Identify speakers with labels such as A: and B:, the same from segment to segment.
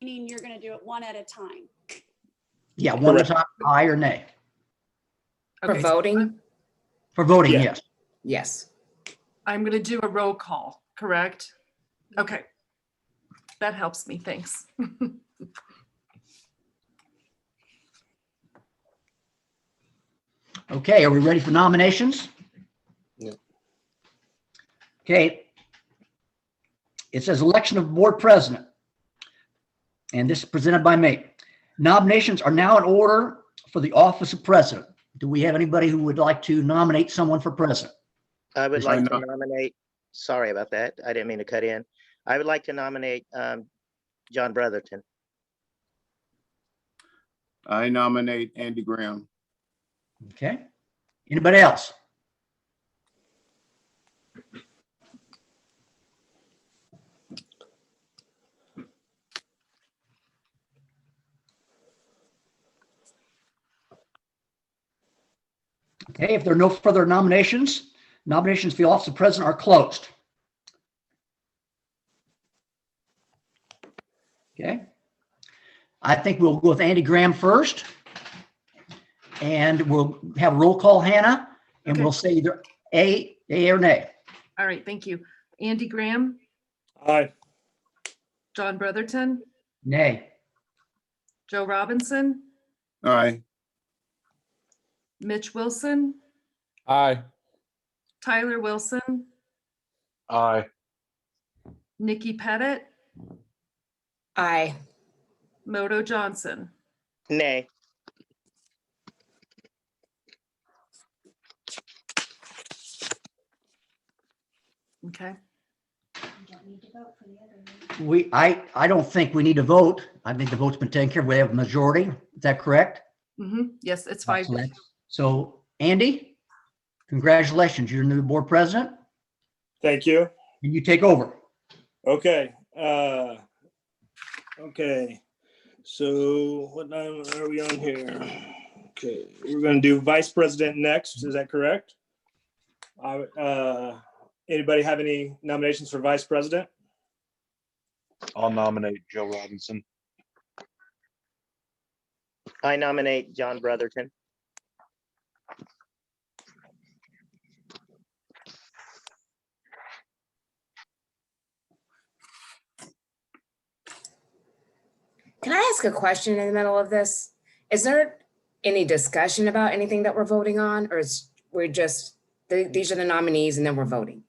A: meaning you're going to do it one at a time.
B: Yeah, one is aye or nay.
C: Okay,
D: For
C: so
D: voting?
B: For voting,
E: Yeah.
B: yes.
D: Yes.
C: I'm going to do a roll call, correct? Okay. That helps me, thanks.
B: Okay, are we ready for nominations?
E: Yeah.
B: Okay. It says election of board president. And this is presented by me. Nominations are now in order for the office of president. Do we have anybody who would like to nominate someone for president?
F: I would
E: Is there
F: like to
E: no-
F: nominate, sorry about that. I didn't mean to cut in. I would like to nominate um, John Brotherton.
E: I nominate Andy Graham.
B: Okay. Anybody else? Okay, if there are no further nominations, nominations for the office of president are closed. Okay. I think we'll go with Andy Graham first. And we'll have roll call, Hannah, and
C: Okay.
B: we'll say either A, A or nay.
C: All right, thank you. Andy Graham,
E: Aye.
C: John Brotherton,
B: Nay.
C: Joe Robinson,
E: Aye.
C: Mitch Wilson,
G: Aye.
C: Tyler Wilson,
G: Aye.
C: Nikki Pettit,
D: Aye.
C: Moto Johnson.
F: Nay,
C: Okay,
B: We, I, I don't think we need to vote. I think the vote's been taken care of. We have a majority. Is that correct?
C: Mhm. yes, it's five.
B: So that's- So Andy, congratulations. You're the new board president
H: Thank you.
B: and you take over.
H: Okay, uh, okay. So what number are we on here? Okay, we're gonna do vice president next, is that correct? I would, Uh, anybody have any nominations for vice president?
G: I'll nominate Joe Robinson.
F: I nominate John Brotherton.
D: Can I ask a question in the middle of this? Is there any discussion about anything that we're voting on or is we're just, th- these are the nominees and then we're voting?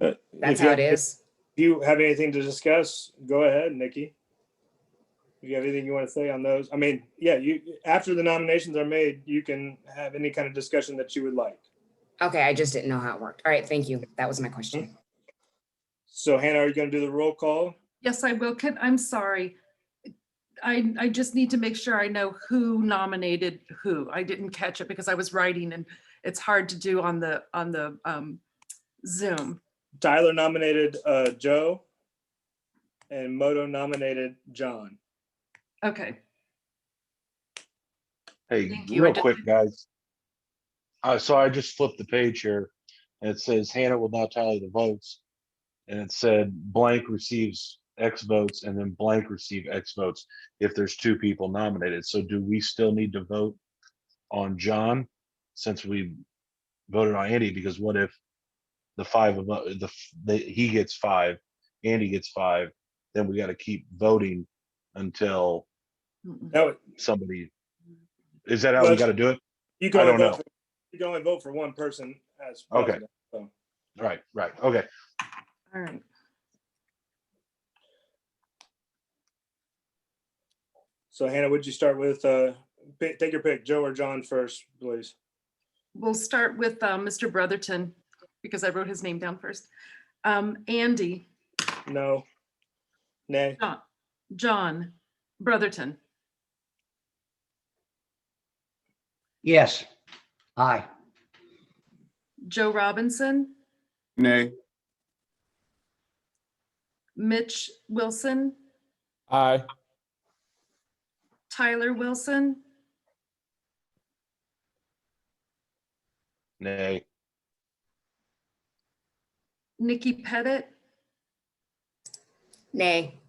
H: Uh,
D: That's
H: if you-
D: how it is?
H: If you have anything to discuss, go ahead, Nikki. If you have anything you want to say on those, I mean, yeah, you, after the nominations are made, you can have any kind of discussion that you would like.
D: Okay, I just didn't know how it worked. All right, thank you. That was my question.
H: So Hannah, are you gonna do the roll call?
C: Yes, I will. Can, I'm sorry. I, I just need to make sure I know who nominated who. I didn't catch it because I was writing and it's hard to do on the, on the um, Zoom.
H: Tyler nominated uh, Joe, and Moto nominated John.
C: Okay,
G: Hey,
C: Thank you. I
G: real
C: just-
G: quick, guys. Uh, so I just flipped the page here and it says Hannah will now tally the votes. And it said blank receives X votes and then blank receive X votes if there's two people nominated. So do we still need to vote on John since we voted on Andy? Because what if the five of, u- the, f- the, he gets five, Andy gets five, then we gotta keep voting until
C: Mm-mm.
H: That was,
G: somebody. Is that how we
H: Well,
G: gotta do it?
H: you
G: I
H: can only
G: don't
H: vote
G: know.
H: For, you can only vote for one person as
G: Okay.
H: president. So,
G: Right, right, okay.
C: All right.
H: so Hannah, would you start with uh, pick, take your pick, Joe or John first, please?
C: We'll start with uh, Mr. Brotherton because I wrote his name down first. Um, Andy,
H: No. Nay.
C: John, John Brotherton,
B: Yes. Aye.
C: Joe Robinson,
E: Nay.
C: Mitch Wilson,
G: Aye.
C: Tyler Wilson,
G: Nay,
C: Nikki Pettit,
D: Nay.